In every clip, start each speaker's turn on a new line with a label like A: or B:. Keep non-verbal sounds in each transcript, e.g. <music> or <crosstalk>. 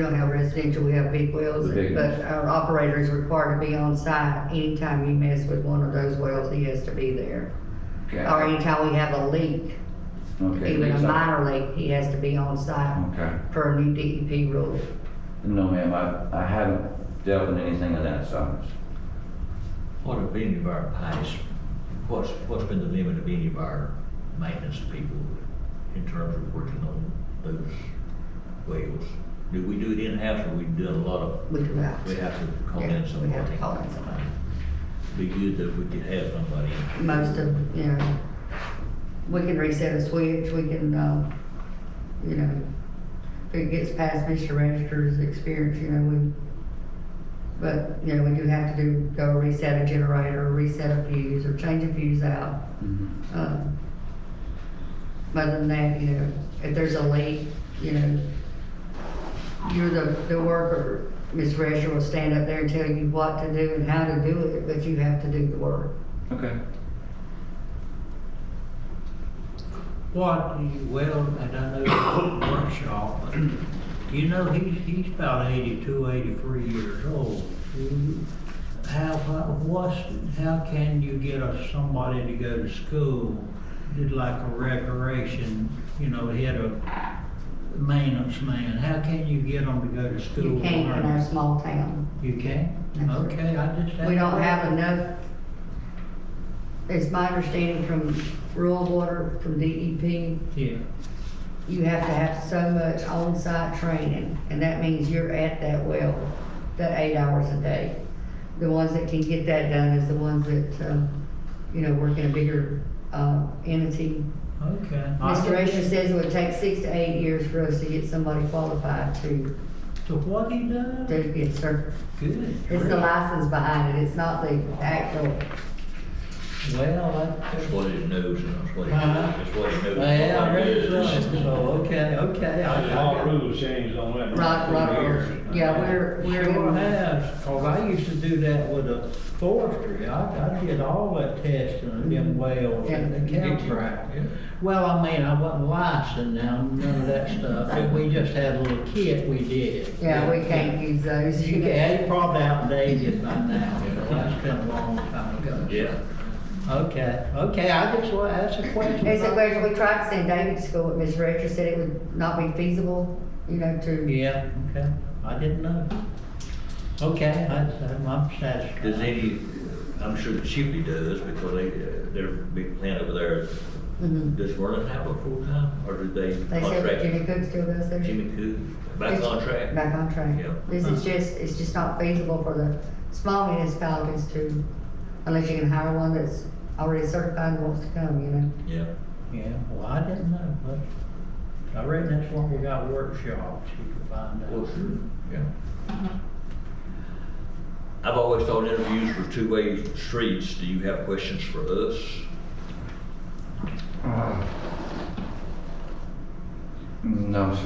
A: We don't have residential, we have big wells,
B: The big
A: but our operator is required to be on site. Anytime you mess with one of those wells, he has to be there.
B: Okay.
A: Or anytime we have a leak,
B: Okay,
A: Um, even a
B: leaks up.
A: minor leak, he has to be on site
B: Okay.
A: per new DEP rule.
B: No, ma'am, I, I haven't dealt with anything of that size.
C: What have any of our past, what's, what's been the limit of any of our maintenance people in terms of working on those wells? Do we do it in-house or we do a lot of,
A: We do that.
C: we have to call
A: Yeah,
C: in
A: we have to call
C: somebody?
A: in somebody.
C: Be good that we could have somebody. in.
A: Most of, you know, we can reset a switch, we can, uh, you know, if it gets past Mr. Register's experience, you know, we, but, you know, we do have to do, go reset a generator, reset a fuse, or change a fuse out. Um, But other than that, you know, if there's a leak, you know, you're the, the worker, Ms. Register will stand up there and tell you what to do and how to do it, but you have to do the work.
B: Okay.
C: What, do you- well, and I know the workshop, but do you know, he's, he's about eighty-two, eighty-three years old. Do you- How, how- what's, how can you get a, somebody to go to school, did like a recreation, you know, he had a maintenance man, how can you get them to go to school?
A: You
C: and
A: can't in
C: learn?
A: our small town.
C: You can?
A: That's right.
C: Okay, I just.
A: We don't have enough, it's my understanding from rural water, from DEP,
C: Yeah,
A: you have to have so much on-site training, and that means you're at that well, the eight hours a day. The ones that can get that done is the ones that, um, you know, work in a bigger, uh, entity.
C: okay. I
A: Mr.
C: just-
A: Asher says it would take six to eight years for us to get somebody qualified to,
C: To what he does?
A: to get cert.
C: Good.
A: It's the license behind it, it's not the actual
C: Well, that's.
D: That's what it knows, and that's what it,
C: Huh?
D: that's what it knows.
C: Uh-huh. Well, I
D: What
C: read
D: it
C: it,
D: is.
C: so, okay, okay. I- I-
E: All rules changed on that.
A: Right, right, yeah, we're, we're,
C: Sure
A: in-
C: has, cause I used to do that with a forestry, I, I did all that testing of them wells and the
D: Yeah.
C: campground.
D: Yeah.
C: Well, I mean, I wasn't licensed now, none of that stuff, and we just had a little kit, we did.
A: yeah, we can't use those. <laughs>
C: You can, it's probably outdated by now, so that's been a long time ago.
D: Yeah.
C: Okay, okay, I just want, that's a question.
A: It's a question, we tried to send David to school, but Ms. Rector said it would not be feasible, you know, to,
C: Yeah, okay, I didn't know. Okay, I- I'm I'm satisfied.
D: Does any, I'm sure the Chipley does, because they, uh, their big plant over there,
A: Mhm.
D: does Vernon have a full-time, or do they
A: they said that Jimmy
D: contract?
A: Cook still does their.
D: Jimmy Cook, by contract?
A: By contract.
D: Yeah.
A: This is just, it's just not feasible for the small municipalities to, unless you can hire one that's already certified and wants to come, you know.
D: Yeah,
C: Yeah, well, I didn't know, but I read that's one we got workshops, you can find out.
D: well, Mm-hmm. sure, yeah. I've always thought interviews were two-way streets, do you have questions for us?
B: Uh, No, sir.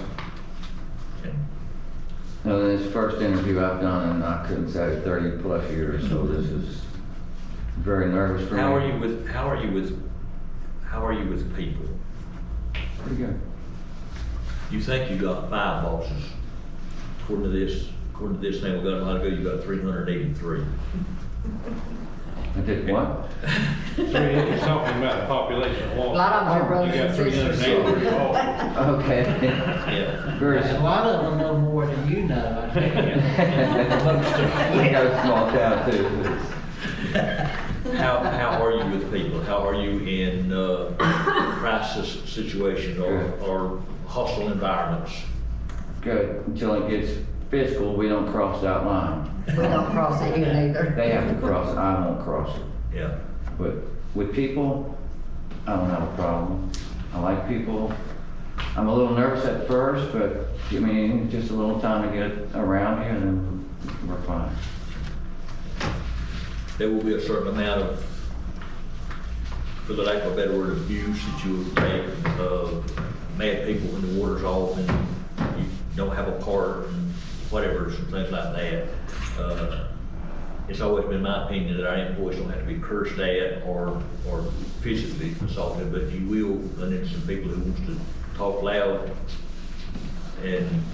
D: Okay.
B: No, this first interview I've done, and I couldn't say thirty plus years, so this is very nervous for me.
D: How are you with, how are you with, how are you with people?
B: Pretty good.
D: You think you got five bosses. According to this, according to this thing we got a while ago, you got three hundred and eighty-three.
B: I did what?
E: Three, it's talking about the population
A: A
E: of Walton.
A: lot of them are brothers
E: Oh, You
A: and
E: got three hundred and
A: sisters.
E: eighty-three Walton.
D: <laughs>
B: Okay.
D: Yeah.
B: Very.
C: A
B: s- <laughs>
C: lot of them know more than you know, I <laughs> think.
B: We got a small town too.
D: How, how are you with people? How are you in, uh, crisis situations or, or hostile environments?
B: Good, until it gets fiscal, we don't cross that line.
A: We don't cross it here neither.
E: <laughs>
B: They have to cross, it. I won't cross it.
D: Yeah,
B: But with people, I don't have a problem. I like people. I'm a little nervous at first, but I mean, just a little time to get around you and then we're fine.
D: there will be a certain amount of, for the lack of a better word, abuse that you will take, uh, mad people when the water's off and you don't have a part and whatever, some things like that. Uh, It's always been my opinion that our employees don't have to be cursed at or, or physically assaulted, but you will run into some people who wants to talk loud and